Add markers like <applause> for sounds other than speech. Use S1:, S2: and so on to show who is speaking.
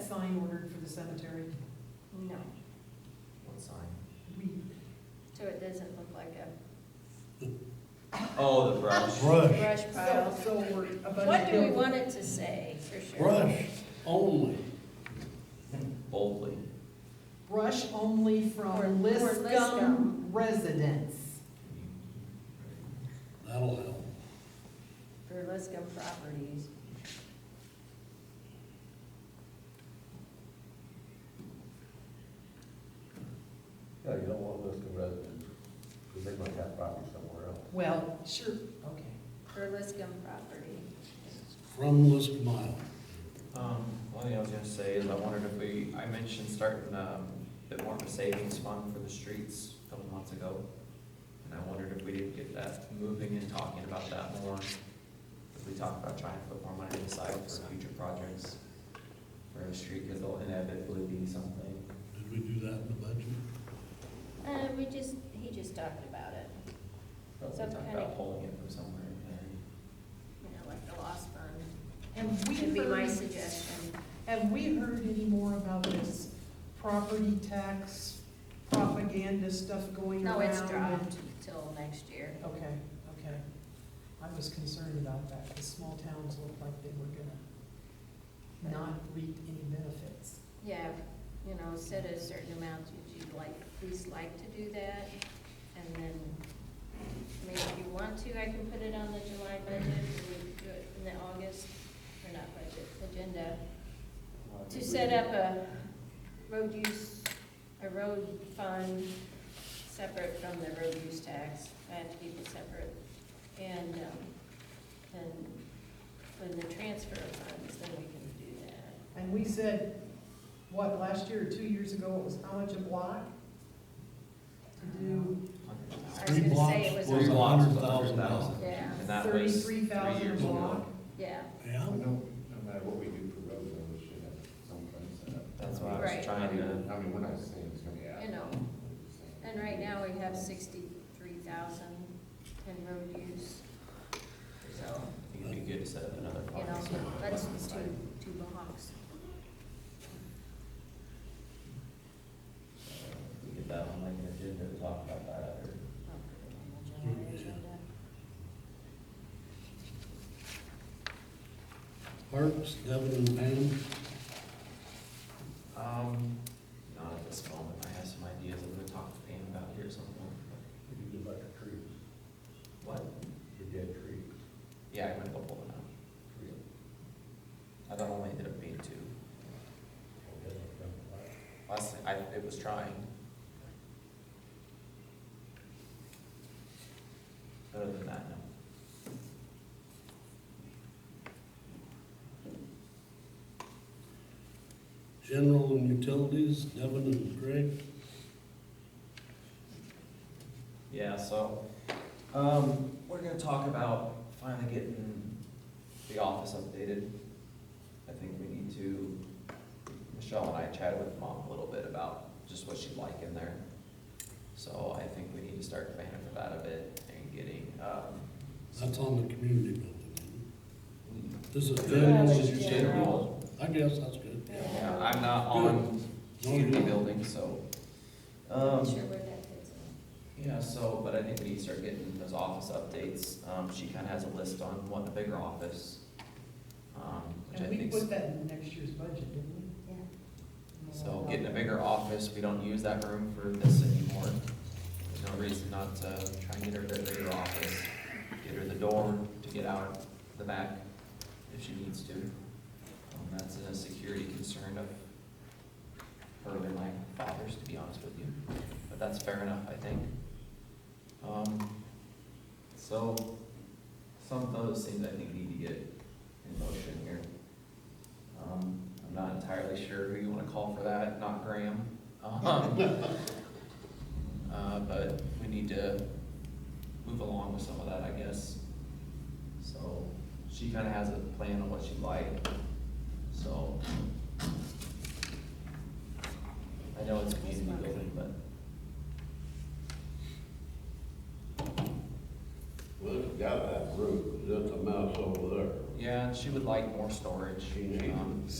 S1: sign ordered for the cemetery?
S2: No,
S3: What sign?
S1: We,
S2: so it doesn't look like <laughs> a
S3: Oh, the brush.
S4: Brush,
S2: brush pile.
S1: so we're a bunch
S2: What
S1: of
S2: do we
S1: buildings-
S2: want it to say, for sure?
S4: brush only.
S3: Boldly.
S1: Brush only
S2: Or- or
S1: from Liscum
S2: Liscum.
S1: residents.
S4: That'll help.
S2: Burlesque properties.
S5: Yeah, you don't want Liscum residents, because they might have property somewhere else.
S1: Well, sure, okay.
S2: Burlesque property.
S4: From List Mile.
S3: Um, one thing I was gonna say is I wondered if we, I mentioned starting, um, a bit more of a savings fund for the streets a couple months ago. And I wondered if we didn't get that moving and talking about that more. If we talk about trying to put more money aside for future projects for the street, because there'll inevitably be something.
S4: Did we do that in the budget?
S2: Uh, we just, he just talked about it,
S3: But we
S2: Some
S3: talked
S2: kind
S3: about
S2: of-
S3: pulling it from somewhere in there.
S2: you know, like the lost fund.
S1: Have we
S2: Would be my
S1: heard,
S2: suggestion.
S1: have we heard any more about this property tax propaganda stuff going around?
S2: No, it's
S1: and-
S2: dropped till next year.
S1: Okay, okay. I was concerned about that, because small towns looked like they were gonna not reap any benefits.
S2: Yeah, you know, set a certain amount that you'd like, least like to do that, and then, I mean, if you want to, I can put it on the July budget, or we could do it in the August, or not budget, agenda, to set up a road use, a road fund separate from the road use tax, I have to keep it separate, and, um, and when the transfer of funds, then we can do that.
S1: And we said, what, last year or two years ago, it was how much a block? To do
S2: I was
S4: Three
S2: gonna
S4: blocks
S2: say it was
S4: was
S2: a-
S4: a
S3: blocks
S4: hundred
S3: was a hundred
S4: thousand
S3: thousand.
S4: dollars.
S2: Yeah,
S3: And that was three
S1: thirty-three thousand a
S3: years ago.
S1: block?
S2: yeah,
S4: Yeah?
S6: No, no matter what we do for roads, though, we should have some kind of setup.
S3: That's why I
S2: Right.
S3: was trying to.
S6: I mean, we're not saying it's gonna be out.
S2: you know, and right now we have sixty-three thousand in road use. So,
S3: It'd be good to set up another
S2: you know,
S3: policy.
S2: that's two, two blocks.
S3: We get that on like an agenda to talk about that other.
S4: Parks, Devin and Pam,
S3: Um, not at this moment, I have some ideas I'm gonna talk to Pam about here at some point.
S5: If you do like the trees,
S3: What?
S5: the dead trees.
S3: Yeah, I'm gonna go pull them out.
S5: Tree.
S3: I thought it only ended up being two. Last, I, it was trying. Other than that, no.
S4: General and Utilities, Devin and Greg.
S3: Yeah, so, um, we're gonna talk about finally getting the office updated. I think we need to, Michelle and I chatted with mom a little bit about just what she'd like in there. So I think we need to start planning for that a bit and getting, um.
S4: That's on the community building. isn't it? This is
S2: Yeah,
S4: general,
S2: that's
S4: and
S2: just
S4: utilities. I guess that's good.
S3: Yeah, I'm not on community building, so, um.
S2: Not Sure where that fits in.
S3: Yeah, so, but I think we need to start getting those office updates. Um, she kind of has a list on wanting a bigger office. um, Which I
S1: And we
S3: think,
S1: put that in next year's budget, didn't we?
S2: Yeah,
S3: so getting a bigger office, we don't use that room for this anymore. There's no reason not to try and get her a bigger office, get her the door to get out the back if she needs to. Um, That's a security concern of her and my father's, to be honest with you, but that's fair enough, I think. Um, So, some of those things I think need to get in motion here. Um, I'm not entirely sure who you want to call for that, not Graham. Um, <laughs> uh, But we need to move along with some of that, I guess. So she kind of has a plan on what she'd like, so. I know it's community building, but
S5: Well, it's got that roof, that's a mouse over there.
S3: yeah, she would like more storage.
S5: She needs
S3: um,
S5: it.